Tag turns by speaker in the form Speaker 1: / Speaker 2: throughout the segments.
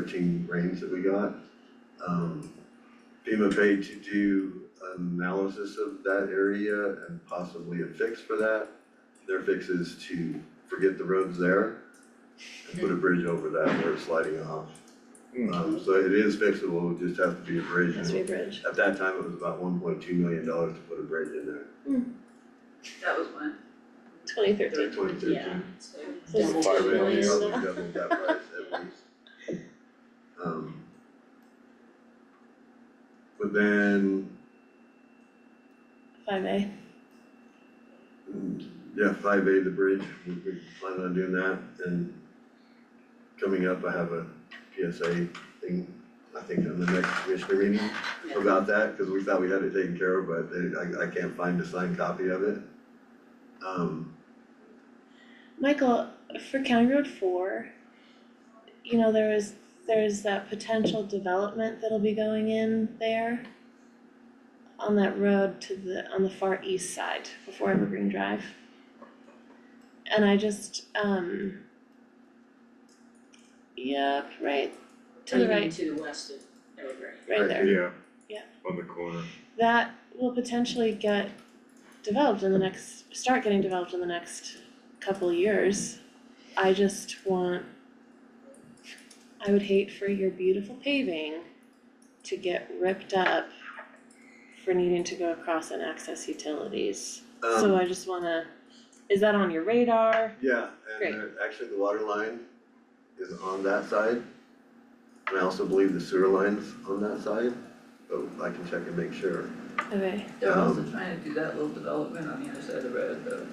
Speaker 1: thirteen rains that we got. Um, FEMA paid to do analysis of that area and possibly a fix for that. Their fix is to forget the roads there and put a bridge over that where it's sliding off.
Speaker 2: Hmm.
Speaker 1: Um, so it is fixable, it just has to be a bridge.
Speaker 3: Has to be a bridge.
Speaker 1: At that time, it was about one point two million dollars to put a bridge in there,
Speaker 4: That was one.
Speaker 3: Twenty thirteen.
Speaker 1: twenty thirteen.
Speaker 3: Yeah.
Speaker 4: So
Speaker 3: So it's
Speaker 1: Five
Speaker 3: two
Speaker 1: million,
Speaker 3: million
Speaker 1: we
Speaker 3: now.
Speaker 1: doubled that price at least. Um. But then,
Speaker 3: Five A.
Speaker 1: mm, yeah, five A, the bridge, we we plan on doing that and coming up, I have a PSA thing, I think on the next commissioner meeting
Speaker 4: Yeah.
Speaker 1: about that, cause we thought we had it taken care of, but they, I I can't find a signed copy of it. Um,
Speaker 3: Michael, for County Road four, you know, there is, there is that potential development that'll be going in there on that road to the, on the far east side before Evergreen Drive. And I just, um, yep, right, to the
Speaker 4: I mean,
Speaker 3: right,
Speaker 4: to the west of Evergreen.
Speaker 3: right there.
Speaker 2: Yeah.
Speaker 3: Yeah.
Speaker 2: On the corner.
Speaker 3: that will potentially get developed in the next, start getting developed in the next couple years. I just want, I would hate for your beautiful paving to get ripped up for needing to go across and access utilities.
Speaker 1: um,
Speaker 3: So I just wanna, is that on your radar?
Speaker 1: Yeah,
Speaker 3: Great.
Speaker 1: and uh, actually the water line is on that side. And I also believe the sewer line's on that side, but I can check and make sure.
Speaker 3: Okay,
Speaker 5: They're also
Speaker 1: Um,
Speaker 5: trying to do that little development on the other side of the road, though,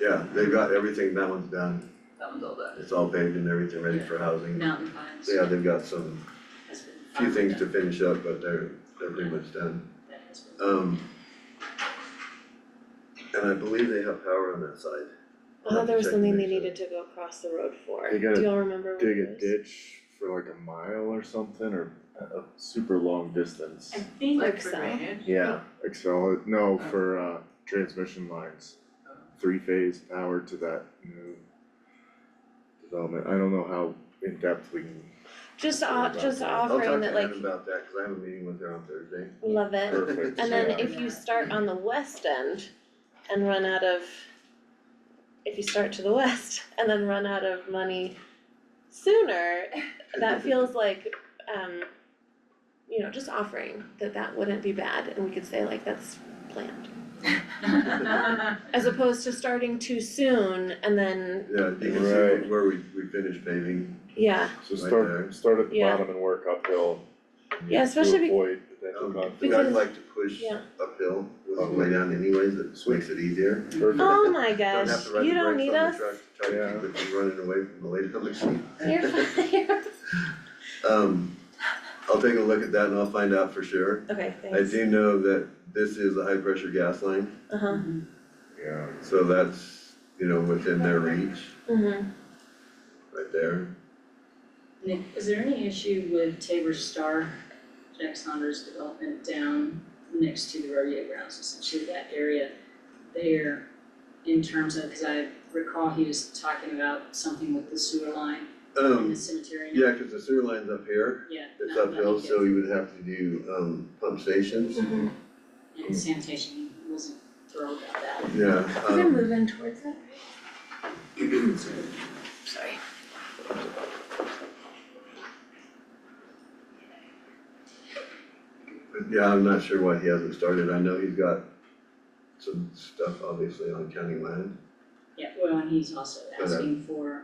Speaker 1: Yeah, they've got everything, that one's done,
Speaker 5: that one's all done.
Speaker 1: it's all paved and everything ready for housing.
Speaker 4: Mountain Pines.
Speaker 1: Yeah, they've got some,
Speaker 4: Has been
Speaker 1: few things
Speaker 4: farmed
Speaker 1: to finish up, but they're, they're pretty much done.
Speaker 4: out. That has been-
Speaker 1: Um. And I believe they have power on that side.
Speaker 3: I thought Oh, there was something they needed to go across the road for,
Speaker 2: They
Speaker 3: do
Speaker 2: gotta
Speaker 3: y'all remember what
Speaker 2: Dig
Speaker 3: it
Speaker 2: a
Speaker 3: was?
Speaker 2: ditch for like a mile or something or a a super long distance.
Speaker 4: I think
Speaker 3: Like
Speaker 5: Like
Speaker 3: so.
Speaker 5: for drainage?
Speaker 2: Yeah, Excel, no, for uh transmission lines. Three phase power to that new development. I don't know how in depth we can,
Speaker 3: Just off, just
Speaker 1: I'll talk
Speaker 3: offering that
Speaker 1: to
Speaker 3: like,
Speaker 1: Ann about that, cause I have a meeting with her on Thursday.
Speaker 3: love it.
Speaker 2: perfect,
Speaker 3: And then
Speaker 2: yeah.
Speaker 3: if you start on the west end and run out of, if you start to the west and then run out of money sooner, that feels like, um, you know, just offering that that wouldn't be bad and we could say like that's planned. As opposed to starting too soon and then,
Speaker 1: Yeah, you can see
Speaker 2: Right.
Speaker 1: where we, we finished paving.
Speaker 3: yeah,
Speaker 2: So
Speaker 1: Right there.
Speaker 2: start, start at the
Speaker 3: Yeah.
Speaker 2: bottom and work uphill.
Speaker 3: Yeah, especially be-
Speaker 2: To avoid potential
Speaker 1: Um, but
Speaker 2: conflict.
Speaker 3: Because-
Speaker 1: I'd like to push
Speaker 3: yeah.
Speaker 1: uphill with the way down anyways, that makes it easier.
Speaker 2: Perfect.
Speaker 3: oh my
Speaker 1: Don't
Speaker 3: gosh,
Speaker 1: have to
Speaker 3: you
Speaker 1: ride the
Speaker 3: don't need
Speaker 1: brakes on the
Speaker 3: us.
Speaker 1: truck to try to keep it from running away from the lady on the seat.
Speaker 3: You're fine, you're-
Speaker 1: Um, I'll take a look at that and I'll find out for sure.
Speaker 3: Okay,
Speaker 1: I
Speaker 3: thanks.
Speaker 1: do know that this is a high pressure gas line,
Speaker 3: Uh-huh,
Speaker 2: Yeah,
Speaker 1: so that's, you know, within their reach
Speaker 3: mhm.
Speaker 1: right there.
Speaker 4: Nick, is there any issue with Tabor Star, Jack Saunders development down next to the rodeo grounds, essentially that area there in terms of, cause I recall he was talking about something with the sewer line in the
Speaker 1: Um,
Speaker 4: cemetery.
Speaker 1: yeah, cause the sewer line's up here.
Speaker 4: Yeah,
Speaker 1: It's
Speaker 4: not letting
Speaker 1: uphill,
Speaker 4: it-
Speaker 1: so you would have to do, um, pump stations.
Speaker 3: Mm-hmm.
Speaker 4: And sanitation wasn't thrilled about that.
Speaker 1: Yeah, um,
Speaker 3: moving towards it? Sorry.
Speaker 1: But Yeah, I'm not sure why he hasn't started, I know he's got some stuff obviously on county land.
Speaker 4: Yeah, well, and he's also
Speaker 1: Okay.
Speaker 4: asking for,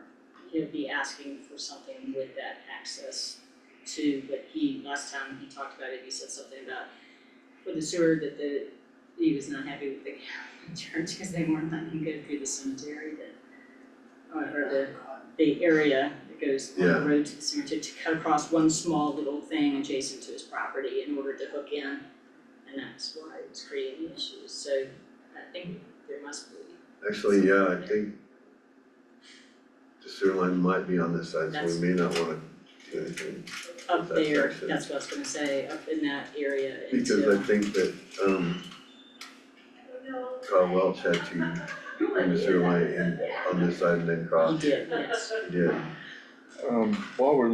Speaker 4: he'll be asking for something with that access too, but he, last time he talked about it, he said something about with the sewer that the, he was not happy with the church because they weren't letting him go through the cemetery that or the, the area that goes on
Speaker 1: Yeah.
Speaker 4: the road to the cemetery to cut across one small little thing adjacent to his property in order to hook in. And that's why it was creating issues, so I think there must be
Speaker 1: Actually, yeah, I think the sewer line might be on this side, so
Speaker 4: That's-
Speaker 1: we may not wanna do anything,
Speaker 4: up
Speaker 1: That
Speaker 4: there,
Speaker 1: section.
Speaker 4: that's what I was gonna say, up in that area
Speaker 1: because I
Speaker 4: into,
Speaker 1: think that, um, Carl Welch had to bring the sewer line in on this side and then
Speaker 4: you
Speaker 1: cross,
Speaker 4: did, yes.
Speaker 1: he did.
Speaker 2: um, while we're